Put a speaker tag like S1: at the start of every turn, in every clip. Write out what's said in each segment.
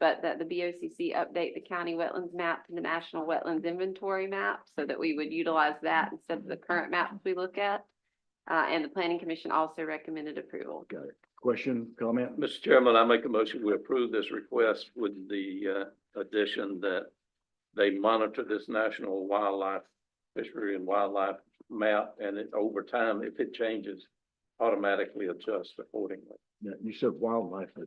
S1: but that the BOCC update the county wetlands map to the national wetlands inventory map so that we would utilize that instead of the current maps we look at. Uh, and the planning commission also recommended approval.
S2: Got it. Question, comment?
S3: Mr. Chairman, I make a motion, we approve this request with the uh, addition that they monitor this national wildlife, fishery and wildlife map, and it, over time, if it changes, automatically adjusts accordingly.
S2: Yeah, You said wildlife, but,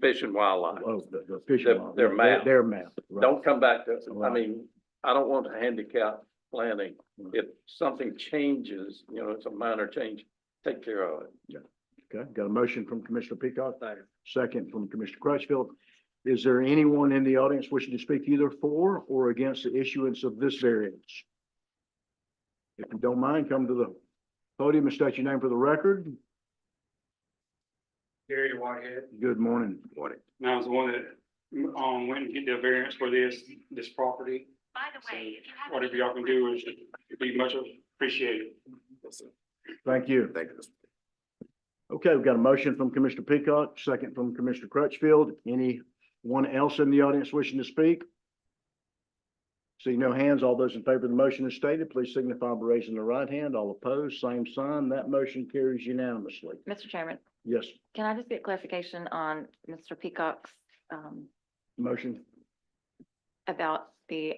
S3: Fish and wildlife.
S2: oh, the, the fishing.
S3: Their-
S2: wild-
S3: their map.
S2: Their map. right.
S3: Don't come back to, us. I
S2: Right.
S3: mean, I don't want to handicap planning. If something changes, you know, it's a minor change, take care of it.
S2: Okay, got a motion from Commissioner Peacock, second from Commissioner Crutchfield. Is there anyone in the audience wishing to speak either for or against the issuance of this variance? If you don't mind, come to the podium and state your name for the record.
S4: Gary Whitehead.
S2: Good morning. Morning.
S4: And I was the one that, um, went and get the variance for this, this property.
S1: By
S4: the way, if Whatever y'all can do is, it'd be much appreciated.
S2: Thank you. Thank you. Okay, we've got a motion from Commissioner Peacock, second from Commissioner Crutchfield. Anyone else in the audience wishing to speak? See no hands. All those in favor of the motion as stated, please signify by raising the right hand. All opposed, same sign. That motion carries unanimously.
S5: Mr. Chairman,
S2: Yes,
S5: can I just get clarification on Mr. Peacock's, um,
S2: motion.
S5: about the,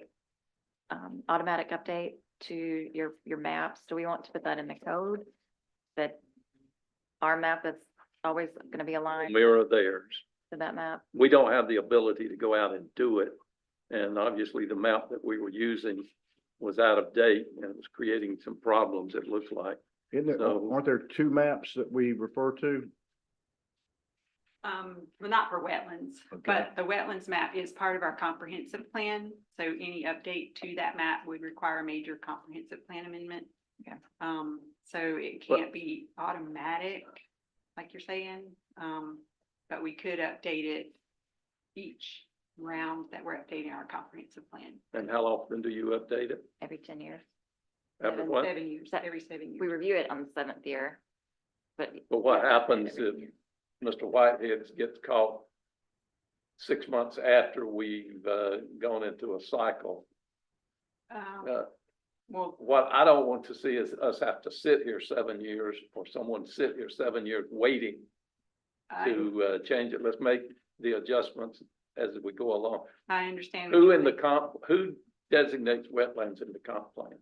S5: um, automatic update to your, your maps? Do we want to put that in the code? That our map is always going to be aligned
S3: Mirror theirs.
S5: to that map?
S3: we don't have the ability to go out and do it. And obviously, the map that we were using was out of date and it was creating some problems, it looks like.
S2: Isn't there,
S3: So-
S2: aren't there two maps that we refer to?
S6: Um, well, not for wetlands,
S2: Okay.
S6: but the wetlands map is part of our comprehensive plan. So any update to that map would require a major comprehensive plan amendment.
S5: Okay.
S6: Um, so it
S3: But-
S6: can't be automatic, like you're saying, um, but we could update it each round that we're updating our comprehensive plan.
S3: And how often do you update it?
S5: Every ten years.
S3: Every
S6: Seven-
S3: what?
S6: Seven years,
S5: That-
S6: every seven years.
S5: We review it on the seventh year. But
S3: But what happens if Mr. Whitehead gets caught six months after we've uh, gone into a cycle?
S6: Um,
S3: Uh,
S6: Well,
S3: What I don't want to see is us have to sit here seven years or someone sit here seven years waiting
S6: I,
S3: to uh, change it. Let's make the adjustments as we go along.
S6: I understand. what
S3: Who
S6: you're
S3: in the
S6: saying.
S3: comp, who designates wetlands in the comp plan?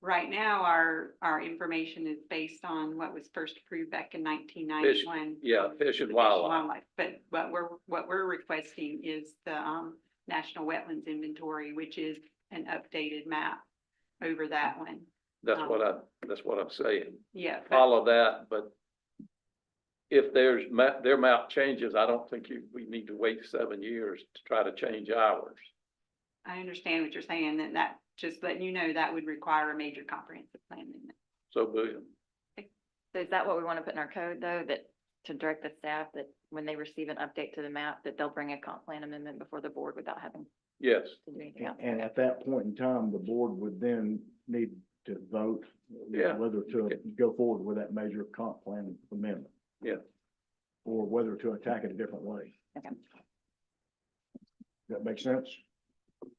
S6: Right now, our, our information is based on what was first approved back in nineteen ninety-one.
S3: Yeah, fish and wildlife.
S6: But what we're, what we're requesting is the, um, National Wetlands Inventory, which is an updated map over that one.
S3: That's what I, that's what I'm saying.
S6: Yeah, but
S3: Follow that, but if there's map, their map changes, I don't think you, we need to wait seven years to try to change ours.
S6: I understand what you're saying, and that, just letting you know, that would require a major comprehensive plan amendment.
S3: So boom.
S5: so is that what we want to put in our code though, that to direct the staff that when they receive an update to the map, that they'll bring a comp plan amendment before the board without having
S3: Yes,
S5: to do anything
S2: And-
S5: else?
S2: And at that point in time, the board would then need to vote
S3: Yeah.
S2: whether to go forward with that major comp plan amendment.
S3: Yeah.
S2: Or whether to attack it a different way.
S5: Okay.
S2: That makes sense?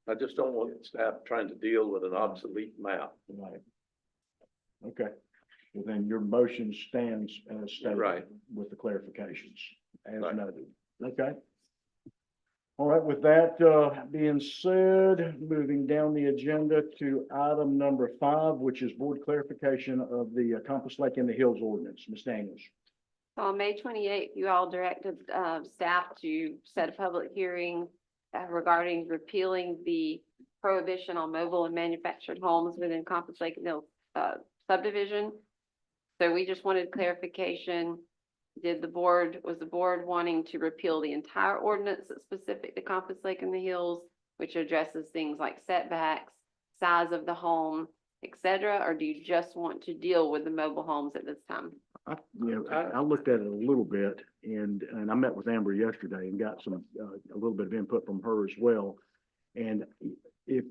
S3: I just don't want staff trying to deal with an obsolete map.
S2: Right. Okay, well then your motion stands as stated.
S3: Right.
S2: With the clarifications as
S3: Right.
S2: noted. Okay. All right, with that, uh, being said, moving down the agenda to item number five, which is board clarification of the uh, Compass Lake in the Hills ordinance. Ms. Daniels.
S1: So on May twenty-eighth, you all directed uh, staff to set a public hearing uh, regarding repealing the prohibition on mobile and manufactured homes within Compass Lake Mill uh, subdivision. So we just wanted clarification. Did the board, was the board wanting to repeal the entire ordinance that's specific to Compass Lake in the Hills, which addresses things like setbacks, size of the home, et cetera? Or do you just want to deal with the mobile homes at this time?
S2: I, you know, I, I looked at it a little bit and, and I met with Amber yesterday and got some, uh, a little bit of input from her as well. And if,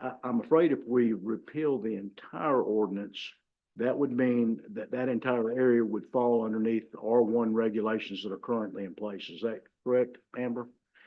S2: I, I'm afraid if we repeal the entire ordinance, that would mean that that entire area would fall underneath the R one regulations that are currently in place. Is that correct, Amber?